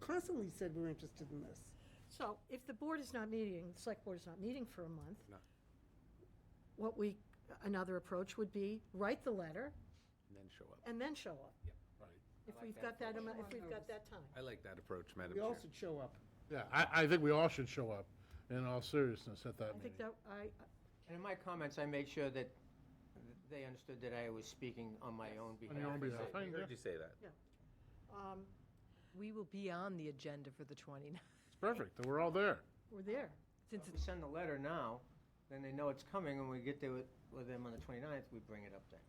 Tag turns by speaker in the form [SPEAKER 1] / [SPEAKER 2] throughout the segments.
[SPEAKER 1] constantly said we're interested in this.
[SPEAKER 2] So if the board is not meeting, the select board is not meeting for a month, what we, another approach would be write the letter
[SPEAKER 3] and then show up.
[SPEAKER 2] and then show up.
[SPEAKER 3] Yeah, right.
[SPEAKER 2] If we've got that, amount- if we've got that time.
[SPEAKER 3] I like that approach, Madam
[SPEAKER 1] We
[SPEAKER 3] Chair.
[SPEAKER 1] all should show up.
[SPEAKER 4] Yeah, I, I think we all should show up in all seriousness at that
[SPEAKER 2] I
[SPEAKER 4] meeting.
[SPEAKER 2] think that, I,
[SPEAKER 5] And in my comments, I made sure that they understood that I was speaking on my own behalf.
[SPEAKER 4] On your own behalf.
[SPEAKER 3] I heard you say that.
[SPEAKER 2] um,
[SPEAKER 6] We will be on the agenda for the 29th,
[SPEAKER 4] It's perfect, that we're all there.
[SPEAKER 2] we're there.
[SPEAKER 6] since
[SPEAKER 5] If
[SPEAKER 6] it's
[SPEAKER 5] we send the letter now, then they know it's coming, and we get there with, with them on the 29th, we bring it up then.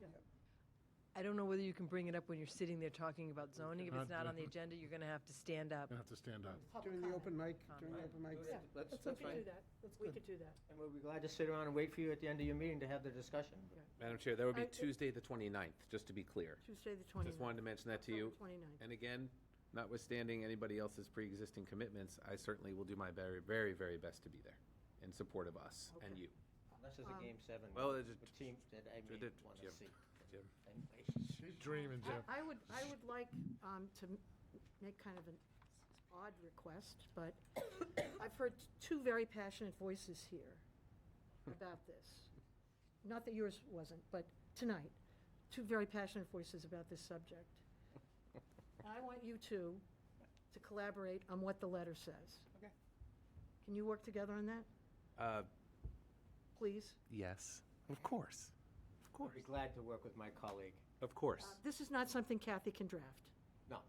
[SPEAKER 6] I don't know whether you can bring it up when you're sitting there talking about zoning. If it's
[SPEAKER 4] cannot
[SPEAKER 6] not
[SPEAKER 4] do
[SPEAKER 6] on the agenda, you're going to have to stand up.
[SPEAKER 4] You have to stand up.
[SPEAKER 1] During the open mic, during the open mics.
[SPEAKER 2] Yeah.
[SPEAKER 5] Let's,
[SPEAKER 1] That's
[SPEAKER 2] We
[SPEAKER 5] that's
[SPEAKER 2] could do
[SPEAKER 5] fine.
[SPEAKER 2] that. We could do that.
[SPEAKER 5] And we'll be glad to sit around and wait for you at the end of your meeting to have the discussion.
[SPEAKER 3] Madam Chair, that would
[SPEAKER 2] I-
[SPEAKER 3] be Tuesday, the 29th, just to be clear.
[SPEAKER 2] Tuesday, the
[SPEAKER 3] Just
[SPEAKER 2] 29th.
[SPEAKER 3] wanted to mention that to you.
[SPEAKER 2] Twenty-ninth.
[SPEAKER 3] And again, notwithstanding anybody else's pre-existing commitments, I certainly will do my very, very, very best to be there in support of us and
[SPEAKER 2] Okay.
[SPEAKER 3] you.
[SPEAKER 5] Unless there's
[SPEAKER 2] Um,
[SPEAKER 5] a game seven.
[SPEAKER 3] Well, uh, there's a-
[SPEAKER 5] with teams that I
[SPEAKER 3] Ju- did-
[SPEAKER 5] may want to
[SPEAKER 3] Jim.
[SPEAKER 5] see.
[SPEAKER 3] Jim.
[SPEAKER 5] And-
[SPEAKER 4] She's dreaming, Jim.
[SPEAKER 2] I I would, I would like um, to m- make kind of an odd request, but I've heard t- two very passionate voices here
[SPEAKER 4] Hmm.
[SPEAKER 2] about this. Not that yours wasn't, but tonight, two very passionate voices about this subject. I want you two to collaborate on what the letter says.
[SPEAKER 3] Okay.
[SPEAKER 2] Can you work together on that,
[SPEAKER 3] Uh,
[SPEAKER 2] please?
[SPEAKER 3] yes, of course, of
[SPEAKER 5] I'd be glad to work with my colleague.
[SPEAKER 3] Of course.
[SPEAKER 2] Uh,
[SPEAKER 5] Um,
[SPEAKER 2] This is not something Kathy can draft.
[SPEAKER 5] No.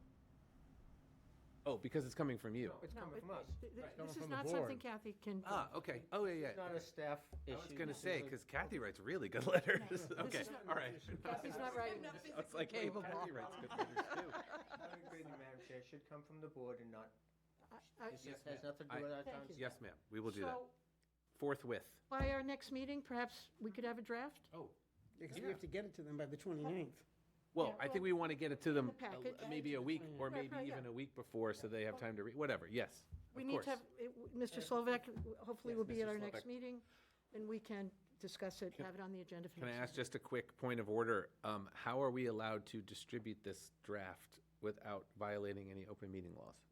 [SPEAKER 3] Oh, because it's coming from you.
[SPEAKER 5] No, It's
[SPEAKER 2] No,
[SPEAKER 5] coming
[SPEAKER 2] it-
[SPEAKER 5] from us.
[SPEAKER 2] th- th-
[SPEAKER 4] It's coming
[SPEAKER 2] This is
[SPEAKER 4] from the
[SPEAKER 2] not something
[SPEAKER 4] board.
[SPEAKER 2] Kathy can.
[SPEAKER 3] Ah, okay. Oh, yeah,
[SPEAKER 5] It's
[SPEAKER 3] yeah.
[SPEAKER 5] not a staff
[SPEAKER 3] I
[SPEAKER 5] issue.
[SPEAKER 3] was going to
[SPEAKER 5] This
[SPEAKER 3] say,
[SPEAKER 5] is a-
[SPEAKER 3] because Kathy writes really good letters. Okay,
[SPEAKER 2] not-
[SPEAKER 3] all right.
[SPEAKER 2] Kathy's not writing this.
[SPEAKER 3] I was like, wait,
[SPEAKER 6] capable.
[SPEAKER 3] Kathy writes good letters too.
[SPEAKER 5] I would agree with you, Madam Chair, it should come from the board and not,
[SPEAKER 2] I- I-
[SPEAKER 5] this
[SPEAKER 3] Yes,
[SPEAKER 5] has nothing to
[SPEAKER 3] I-
[SPEAKER 5] do with our
[SPEAKER 2] Thank
[SPEAKER 5] town.
[SPEAKER 2] you.
[SPEAKER 3] Yes, ma'am, we will do that.
[SPEAKER 2] So
[SPEAKER 3] Forthwith.
[SPEAKER 2] by our next meeting, perhaps we could have a draft?
[SPEAKER 3] Oh,
[SPEAKER 1] Because we have to get it to them by the 29th.
[SPEAKER 3] Well,
[SPEAKER 2] Yeah,
[SPEAKER 3] I think we want to get it to them
[SPEAKER 2] the
[SPEAKER 3] a l-
[SPEAKER 2] package.
[SPEAKER 3] maybe a week, or
[SPEAKER 2] Right,
[SPEAKER 3] maybe
[SPEAKER 2] right, yeah.
[SPEAKER 3] even a week before, so they have time to read, whatever, yes,
[SPEAKER 2] We
[SPEAKER 3] of
[SPEAKER 2] need
[SPEAKER 3] course.
[SPEAKER 2] to have, it- w- Mr. Slovak w- hopefully
[SPEAKER 3] Yes,
[SPEAKER 2] will be at
[SPEAKER 3] Mr.
[SPEAKER 2] our next
[SPEAKER 3] Slovak.
[SPEAKER 2] meeting, and we can discuss it, have it on the agenda for
[SPEAKER 3] Can I
[SPEAKER 2] next
[SPEAKER 3] ask
[SPEAKER 2] meeting.
[SPEAKER 3] just a quick point of order? Um, How are we allowed to distribute this draft without violating any open meeting laws?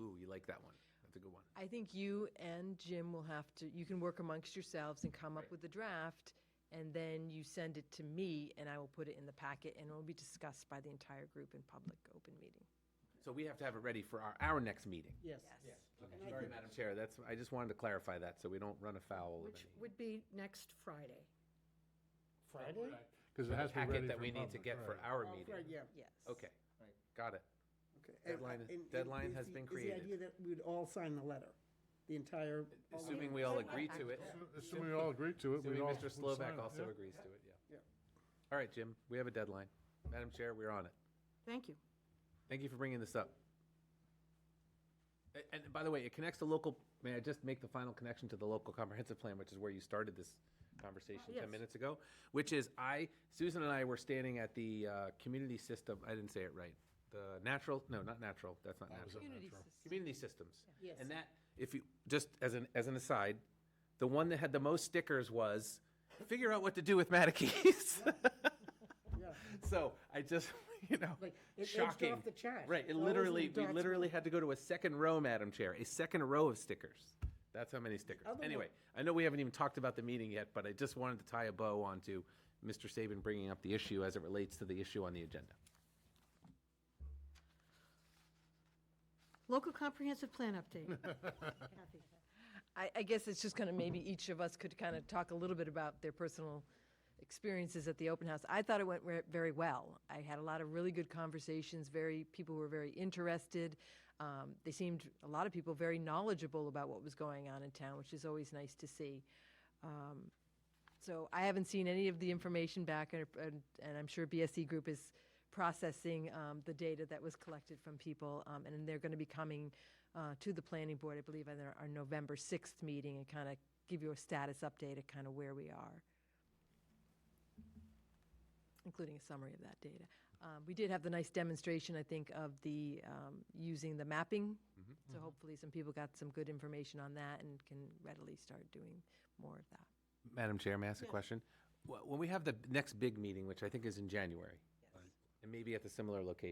[SPEAKER 3] Ooh, you like that one, that's a good one.
[SPEAKER 6] I think you and Jim will have to, you can work amongst yourselves and come up with a draft, and then you send it to me, and I will put it in the packet, and it will be discussed by the entire group in public open meeting.
[SPEAKER 3] So we have to have it ready for our, our next meeting.
[SPEAKER 1] Yes.
[SPEAKER 6] Yes.
[SPEAKER 3] Sorry, Madam Chair, that's, I just wanted to clarify that, so we don't run afoul of
[SPEAKER 2] Which
[SPEAKER 3] any
[SPEAKER 2] would be next Friday.
[SPEAKER 1] Friday?
[SPEAKER 4] Because it has to be ready
[SPEAKER 3] packet that
[SPEAKER 4] for
[SPEAKER 3] we need to
[SPEAKER 4] public,
[SPEAKER 3] get for
[SPEAKER 4] right.
[SPEAKER 3] our
[SPEAKER 1] Oh,
[SPEAKER 3] meeting.
[SPEAKER 1] Friday, yeah.
[SPEAKER 6] Yes.
[SPEAKER 3] Okay,
[SPEAKER 5] Right.
[SPEAKER 3] got it.
[SPEAKER 1] Okay. And-
[SPEAKER 3] Deadline is-
[SPEAKER 1] and- and
[SPEAKER 3] deadline
[SPEAKER 1] is
[SPEAKER 3] has
[SPEAKER 1] the-
[SPEAKER 3] been
[SPEAKER 1] Is
[SPEAKER 3] created.
[SPEAKER 1] the idea that we'd all sign the letter? The entire? all of
[SPEAKER 3] Assuming
[SPEAKER 1] it?
[SPEAKER 3] we all agree to it.
[SPEAKER 4] Assuming we all agree to it, we
[SPEAKER 3] Assuming
[SPEAKER 4] all.
[SPEAKER 3] Mr.
[SPEAKER 4] we'd sign
[SPEAKER 3] Slovak
[SPEAKER 4] it,
[SPEAKER 3] also
[SPEAKER 4] yeah.
[SPEAKER 3] agrees to it, yeah.
[SPEAKER 1] Yeah.
[SPEAKER 3] All right, Jim, we have a deadline. Madam Chair, we're on it.
[SPEAKER 2] Thank you.
[SPEAKER 3] Thank you for bringing this up. A- And by the way, it connects to local, may I just make the final connection to the local comprehensive plan, which is where you started this conversation
[SPEAKER 2] yes.
[SPEAKER 3] 10 minutes ago, which is I, Susan and I were standing at the uh, community system, I didn't say it right, the natural, no, not natural, that's not natural.
[SPEAKER 6] Community system.
[SPEAKER 3] Community systems.
[SPEAKER 1] Yes.
[SPEAKER 3] And that, if you, just as an, as an aside, the one that had the most stickers was, figure out what to do with Matakees.
[SPEAKER 1] Yeah.
[SPEAKER 3] So I just, you know,
[SPEAKER 1] Like, it edged
[SPEAKER 3] shocking.
[SPEAKER 1] off the chart.
[SPEAKER 3] Right, it
[SPEAKER 1] All those
[SPEAKER 3] literally,
[SPEAKER 1] little
[SPEAKER 3] we
[SPEAKER 1] dots
[SPEAKER 3] literally had to go to a second row, Madam Chair, a second row of stickers. That's how many stickers.
[SPEAKER 1] other one-
[SPEAKER 3] Anyway, I know we haven't even talked about the meeting yet, but I just wanted to tie a bow onto Mr. Saban bringing up the issue as it relates to the issue on the agenda.
[SPEAKER 2] Local comprehensive plan update. Kathy.
[SPEAKER 6] I, I guess it's just kind of maybe each of us could kind of talk a little bit about their personal experiences at the open house. I thought it went re- very well. I had a lot of really good conversations. Very people were very interested. Um, they seemed a lot of people very knowledgeable about what was going on in town, which is always nice to see. So I haven't seen any of the information back, and, and- and I'm sure BSE Group is processing um, the data that was collected from people, um, and they're going to be coming uh, to the planning board, I believe, at our our November 6th meeting and kind of give you a status update of kind of where we are, including a summary of that data. Um, We did have the nice demonstration, I think, of the, um, using the mapping. So hopefully some people got some good information on that and can readily start doing more of that.
[SPEAKER 3] Madam Chair, may I ask a question? Wh- When we have the next big meeting, which I think is in January, and maybe at the similar location,